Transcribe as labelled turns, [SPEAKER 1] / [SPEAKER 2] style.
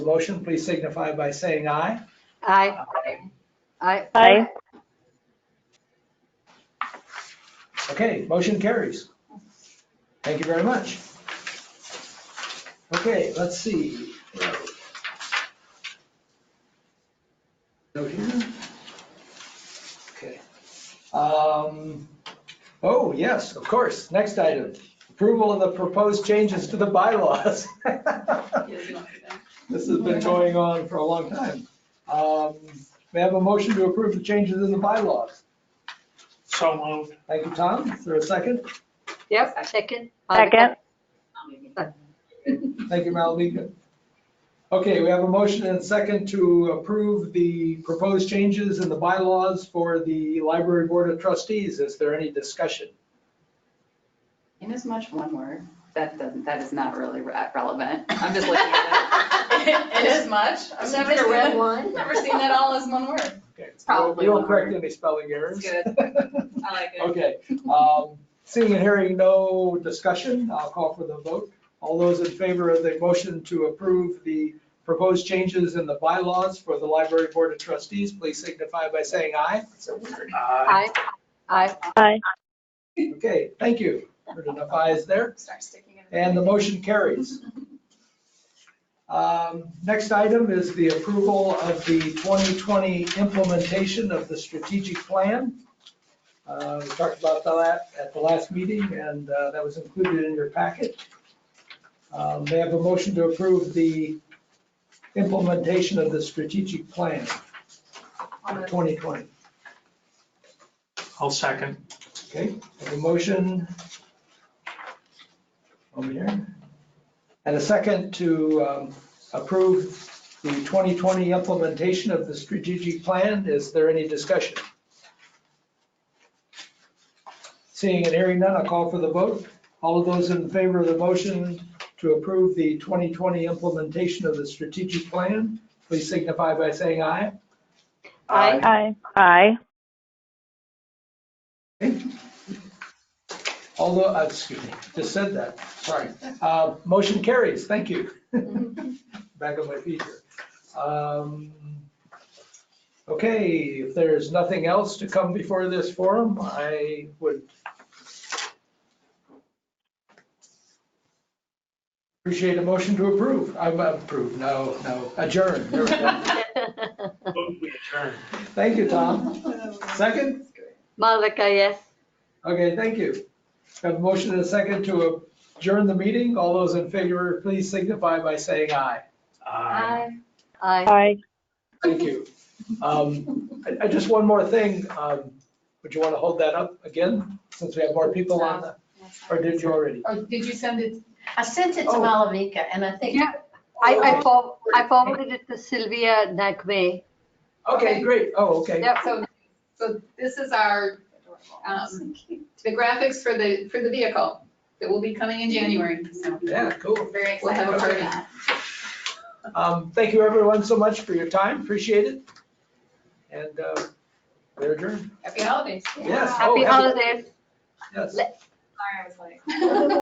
[SPEAKER 1] motion, please signify by saying aye.
[SPEAKER 2] Aye. Aye.
[SPEAKER 3] Aye.
[SPEAKER 1] Okay, motion carries. Thank you very much. Okay, let's see. Note here. Okay. Um, Oh, yes, of course. Next item, approval of the proposed changes to the bylaws. This has been going on for a long time. Um, May I have a motion to approve the changes in the bylaws?
[SPEAKER 4] So moved.
[SPEAKER 1] Thank you, Tom. Is there a second?
[SPEAKER 2] Yep, second.
[SPEAKER 3] Second.
[SPEAKER 1] Thank you, Malavika. Okay, we have a motion and a second to approve the proposed changes in the bylaws for the Library Board of Trustees. Is there any discussion?
[SPEAKER 5] Inasmuch one word, that doesn't, that is not really re- relevant. I'm just looking at it. Inasmuch, I've never seen,
[SPEAKER 2] one.
[SPEAKER 5] never seen that all as one word.
[SPEAKER 1] Okay,
[SPEAKER 5] probably
[SPEAKER 1] You don't
[SPEAKER 5] not.
[SPEAKER 1] correct any spelling errors.
[SPEAKER 5] It's good. I like it.
[SPEAKER 1] Okay, um, seeing and hearing no discussion, I'll call for the vote. All those in favor of the motion to approve the proposed changes in the bylaws for the Library Board of Trustees, please signify by saying aye.
[SPEAKER 2] Aye.
[SPEAKER 4] Aye.
[SPEAKER 2] Aye.
[SPEAKER 3] Aye.
[SPEAKER 1] Okay, thank you. Heard enough ayes there.
[SPEAKER 5] Start sticking it. in.
[SPEAKER 1] And the motion carries. Um, Next item is the approval of the 2020 implementation of the strategic plan. Uh, We talked about that at the last meeting, and uh, that was included in your packet. Um, They have a motion to approve the implementation of the strategic plan for 2020.
[SPEAKER 4] I'll second.
[SPEAKER 1] Okay, have a motion. Over here. And a second to um, approve the 2020 implementation of the strategic plan. Is there any discussion? Seeing and hearing none, I'll call for the vote. All of those in favor of the motion to approve the 2020 implementation of the strategic plan, please signify by saying aye.
[SPEAKER 2] Aye.
[SPEAKER 3] Aye. Aye.
[SPEAKER 1] Although, uh, excuse me, just said that, sorry. Uh, Motion carries, thank you. Back on my feet here. Um, Okay, if there's nothing else to come before this forum, I would appreciate a motion to approve. I'm approved, no, no, adjourn. There we go.
[SPEAKER 4] Vote we adjourn.
[SPEAKER 1] Thank you, Tom. Second?
[SPEAKER 2] Malika, yes.
[SPEAKER 1] Okay, thank you. Have a motion and a second to adjourn the meeting. All those in favor, please signify by saying aye.
[SPEAKER 4] Aye.
[SPEAKER 2] Aye.
[SPEAKER 3] Aye.
[SPEAKER 1] Thank you. Um, I, I just one more thing. Um, would you want to hold that up again, since we have more people on the, or did you already?
[SPEAKER 6] Oh, did you send it? I sent it to
[SPEAKER 1] Oh.
[SPEAKER 6] Malavika and I think.
[SPEAKER 2] Yeah. I, I for- I forwarded it to Sylvia Nagme.
[SPEAKER 1] Okay, great. Oh, okay.
[SPEAKER 2] Yep.
[SPEAKER 7] So, so this is our, um, the graphics for the, for the vehicle that will be coming in January, so
[SPEAKER 1] Yeah, cool.
[SPEAKER 6] Very
[SPEAKER 7] we'll have a party.
[SPEAKER 1] Um, thank you everyone so much for your time. Appreciate it. And, uh, we're adjourned.
[SPEAKER 7] Happy holidays.
[SPEAKER 1] Yes. Oh, happy-
[SPEAKER 2] Happy holidays.
[SPEAKER 1] Yes.
[SPEAKER 7] Sorry, I was late.